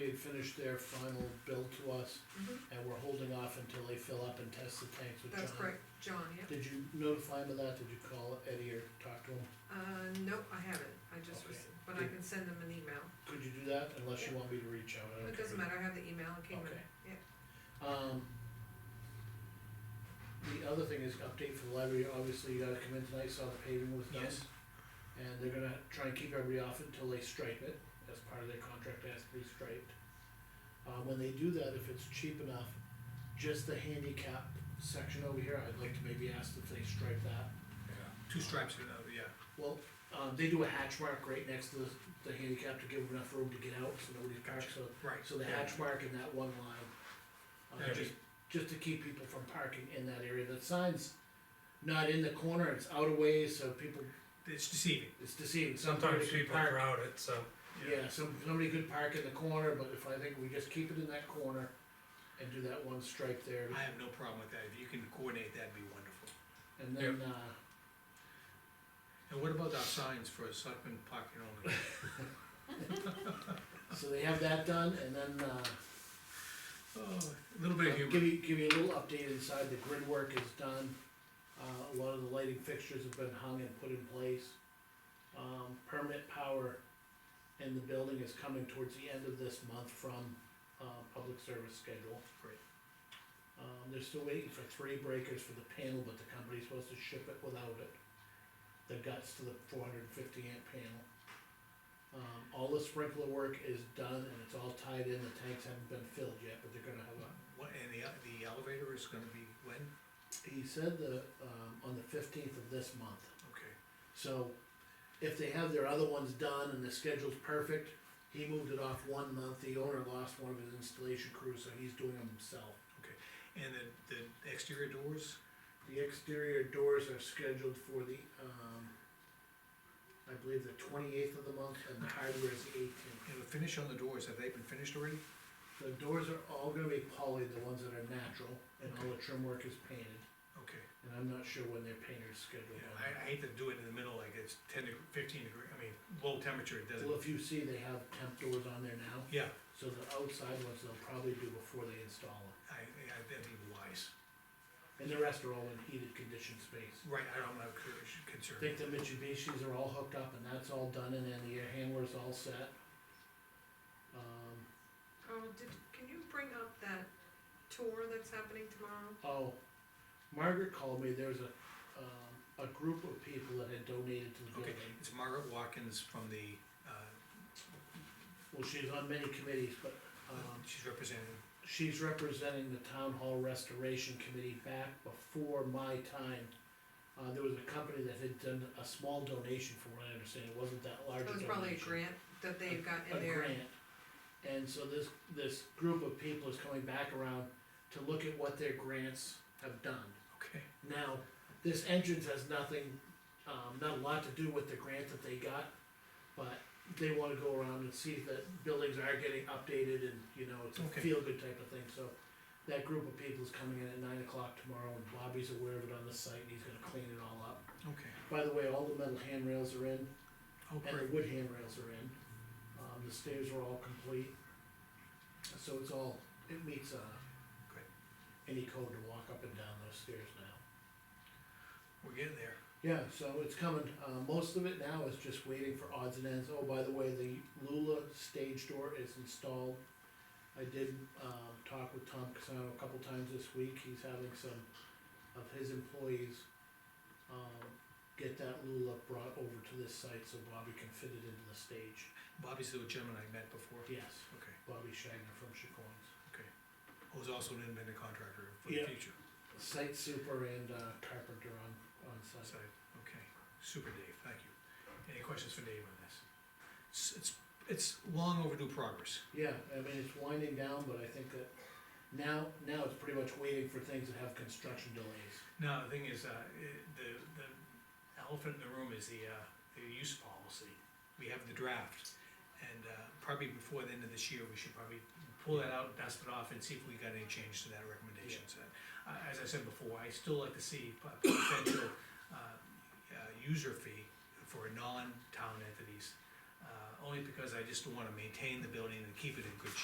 they finish their final bill to us, Mhm. and we're holding off until they fill up and test the tanks with John. That's correct, John, yeah. Did you notify him of that, did you call Eddie or talk to him? Uh, nope, I haven't, I just, Okay. rece- but I can send them an email. Could you do that, unless you want me to reach out? I don't It doesn't care. matter, I have the email, it came in, Okay. yeah. Um. The other thing is update for the library, obviously you gotta come in tonight, saw the paving was done. Yes. And they're gonna try and keep everybody off until they stripe it, as part of their contract, it has to be striped. Uh, when they do that, if it's cheap enough, just the handicap section over here, I'd like to maybe ask if they stripe that. Two stripes, you know, yeah. Well, um, they do a hatch mark right next to the, the handicap to give enough room to get out, so nobody parks, so. Right. So the hatch mark in that one line. uh, Yeah. just, just to keep people from parking in that area, the sign's not in the corner, it's out of ways, so people, It's deceiving. it's deceiving. Somebody Sometimes could people park- crowd it, so, Yeah, some, somebody could park in the corner, but if I think we just keep it in that corner and do that one stripe there, I have no problem with that, if you can coordinate, that'd be wonderful. and then, uh, And what about our signs for selectmen parking only? so they have that done, and then, uh, Oh, a little bit of I'll Give humor. you, give you a little update inside, the grid work is done, uh, a lot of the lighting fixtures have been hung and put in place. Um, permit power in the building is coming towards the end of this month from, uh, public service schedule. Great. Um, they're still waiting for three breakers for the panel, but the company's supposed to ship it without it. The guts to the four hundred and fifty amp panel. Um, all the sprinkler work is done and it's all tied in, the tanks haven't been filled yet, but they're gonna have a What, and the, the elevator is gonna be when? he said the, um, on the fifteenth of this month, Okay, so if they have their other ones done and the schedule's perfect, he moved it off one month, the owner lost one of his installation crews, so he's doing them himself. and the, the exterior doors? The exterior doors are scheduled for the, um, I believe the twenty-eighth of the month, and the hardware is the eighteenth. And the finish on the doors, have they been finished already? The doors are all gonna be poly, the ones that are natural, and all the trim work is painted, Okay, and I'm not sure when their painter's scheduled. yeah, on that. I, I hate to do it in the middle, like it's ten to fifteen degree, I mean, low temperature, it doesn't, Well, if you see, they have temp doors on there now. yeah, So the outside ones they'll probably do before they install them, I, I, that'd be wise. and the rest are all in heated conditioned space. Right, I don't have I concern. think the Mitsubishi's are all hooked up and that's all done and then the air handler's all set. Um, Oh, did, can you bring up that tour that's happening tomorrow? oh, Margaret called me, there's a, um, a group of people that had donated to the Okay, building. it's Margaret Watkins from the, uh, Well, she's on many committees, but, um, she's representing, she's representing the town hall restoration committee back before my time. Uh, there was a company that had done a small donation, from what I understand, it wasn't that large a That was donation. probably a grant that they've got a in there. grant. And so this, this group of people is coming back around to look at what their grants have done. okay, Now, this entrance has nothing, um, not a lot to do with the grant that they got, but they wanna go around and see that buildings are getting updated and, you know, it's a Okay. feel-good type of thing, so. That group of people is coming in at nine o'clock tomorrow and Bobby's aware of it on the site and he's gonna clean it all up. okay. By the way, all the metal handrails are in, Oh, and great, the wood handrails are in, um, the stairs are all complete. So it's all, it meets, uh, Great. any code to walk up and down those stairs now. we're getting there. Yeah, so it's coming, uh, most of it now is just waiting for odds and ends, oh, by the way, the Lula stage door is installed. I did, um, talk with Tom Casano a couple times this week, he's having some of his employees, um, get that Lula brought over to this site so Bobby can fit it into the stage. Bobby's the gentleman I met before. Yes, Okay, Bobby Shagner from Chacoins. who's also an independent contractor for the Yeah. future Site super and uh, carpenter on, on site. side. Okay, super Dave, thank you. Any questions for Dave on this? It's, it's, it's long overdue progress. Yeah, I mean, it's winding down, but I think that now, now it's pretty much waiting for things that have construction delays. Now, the thing is, uh, it- the, the elephant in the room is the, uh, the use policy. We have the draft, and, uh, probably before the end of this year, we should probably pull that out, dust it off, and see if we got any change to that recommendation set. Uh, as I said before, I still like to see po- potential, uh, uh, user fee for non-town entities. Uh, only because I just wanna maintain the building and keep it in good shape.